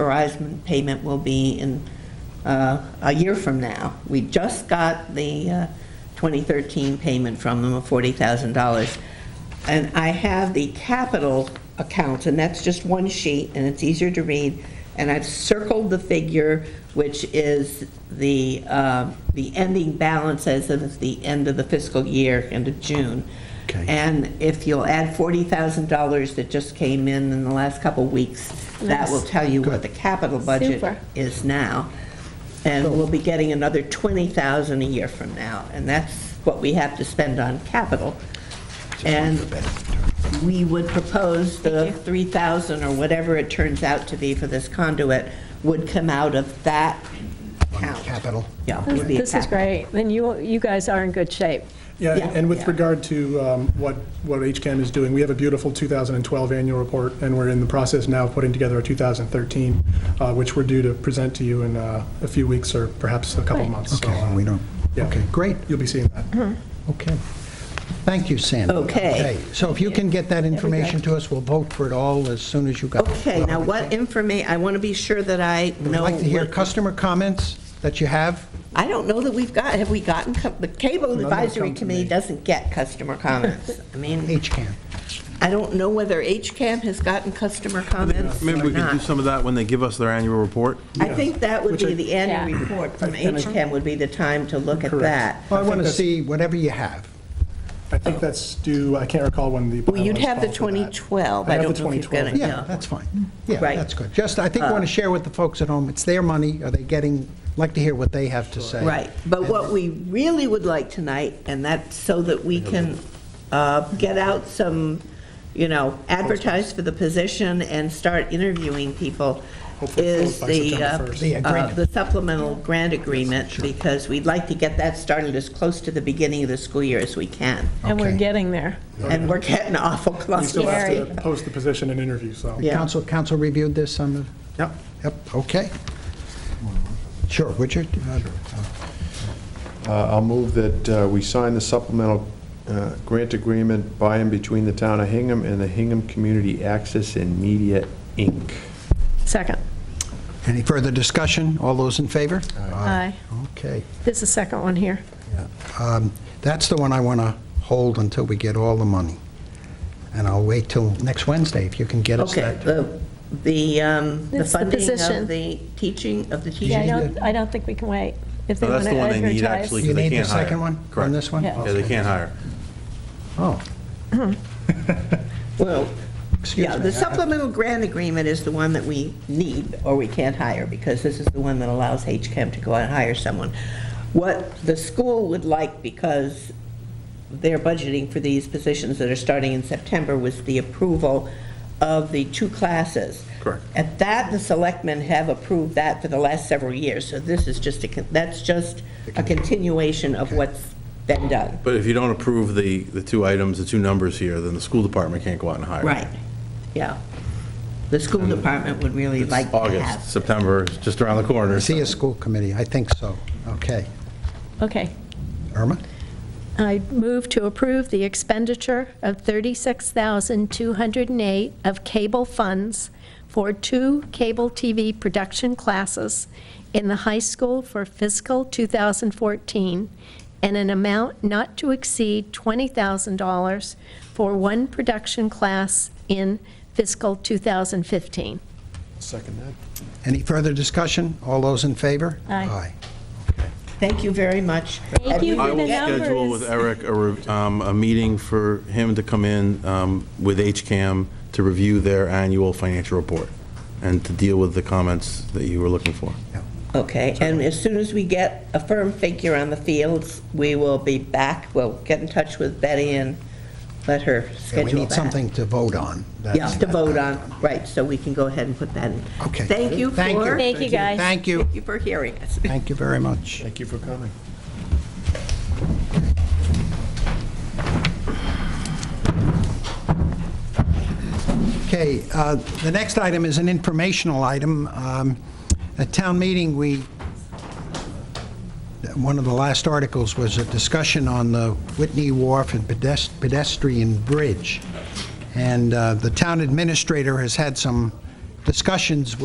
authorized payment will be in uh, a year from now. We just got the uh, 2013 payment from them of $40,000. And I have the capital account, and that's just one sheet, and it's easier to read. And I've circled the figure, which is the, uh, the ending balance as of the end of the fiscal year, end of June. Okay. And if you'll add $40,000 that just came in in the last couple of weeks, that will tell you what Good. the capital budget Super. is now. And we'll be getting another 20,000 a year from now, and that's what we have to spend on capital. And we would propose the 3,000 or whatever it turns out to be for this conduit would come out of that account. Capital. Yeah. it would be a This is capital. great. Then you, you guys are in good shape. Yeah, Yeah. and Yeah. with regard to um, what, what HCAM is doing, we have a beautiful 2012 annual report, and we're in the process now of putting together a 2013, uh, which we're due to present to you in uh, a few weeks or perhaps a couple of Right. months. So, Okay, uh, we don't, yeah. okay, great, You'll be seeing that. Mm-hmm. okay. Thank you, Sandy. Okay. So if you can get that information to us, we'll vote for it all as soon as you got it. Okay, now what informa, I want to be sure that I I'd know. like to hear what- customer comments that you have. I don't know that we've got, have we gotten, co- the Cable have Advisory come to Committee me. doesn't get customer comments. I mean, HCAM. I don't know whether HCAM has gotten customer comments Maybe or we can do not. some of that when they give us their annual report. I think that would Which I- be the annual Yeah. report from And I- HCAM would be the time to look at Correct. that. Well, I want to that's- see whatever you have. I think that's due, I can't recall when the. Well, you'd bylaws have the call for that. 2012. I I have don't the know if you've got 2012. it. Yeah, Yeah. that's fine. Yeah, Right. Uh, that's good. Just, I think, want to share with the folks at home, it's their money, are they getting, like to hear what they have to say. Right, but what we really would like tonight, and that's so that we can uh, get out some, you know, advertise for the position and start interviewing people, Hopefully is closed by the, September uh, 1st. The uh, agreement. the supplemental grant agreement, because we'd like to get that started as close to the beginning of the school year as we can. And we're Okay. getting there. And we're getting awful Oh, We close. still have Scary. to post the position and interview, so. Yeah. Council, council reviewed this on the? Yep. Yep, okay. Sure, Richard? uh, Uh, I'll move that uh, we sign the supplemental uh, grant agreement by and between the town of Hingham and the Hingham Community Access and Media, Inc. Second. Any further discussion? All those in favor? Aye. Okay. There's a second one here. Um, That's the one I want to hold until we get all the money. And I'll wait till next Wednesday if you can get us Okay, that. the, the um, the It's the funding position. of the teaching, of the Yeah, I teaching. don't, I don't think we can wait. If they No, want that's to the one they advertise. need, actually. You They need the can't hire. second one on Correct. this one? Yeah. Yeah, they can't hire. Oh, Well, excuse me. yeah, the I- I- supplemental grant agreement is the one that we need, or we can't hire, because this is the one that allows HCAM to go out and hire someone. What the school would like, because they're budgeting for these positions that are starting in September, was the approval of the two classes. Correct. At that, the selectmen have approved that for the last several years, so this is just a, con- that's just a continuation of what's been done. But if you don't approve the, the two items, the two numbers here, then the school department can't go out and hire. Right, yeah. The school department would really It's like to have. August, September, it's just around the corner. I See a school committee, I think so. Okay. Okay. Irma? I move to approve the expenditure of $36,208 of cable funds for two cable TV production classes in the high school for fiscal 2014, and an amount not to exceed $20,000 for one production class in fiscal 2015. Second that. Any further discussion? All those in favor? Aye. Thank you very much. Thank you I for the will schedule with numbers. Eric a, re- um, a meeting for him to come in um, with HCAM to review their annual financial report and to deal with the comments that you were looking for. Okay, and as soon as we get a firm figure on the fields, we will be back. We'll get in touch with Betty and let her Yeah, schedule We that. need something to vote on. Yeah, That's- to vote on, right, so we can go ahead and put that in. Okay. Thank you for. Thank you. Thank you, guys. Thank you. Thank you for hearing us. Thank you very much. Thank you for coming. Okay, uh, the next item is an informational item. Um, At town meeting, we, one of the last articles was a discussion on the Whitney Wharf and pedes- pedestrian bridge. And uh, the town administrator has had some discussions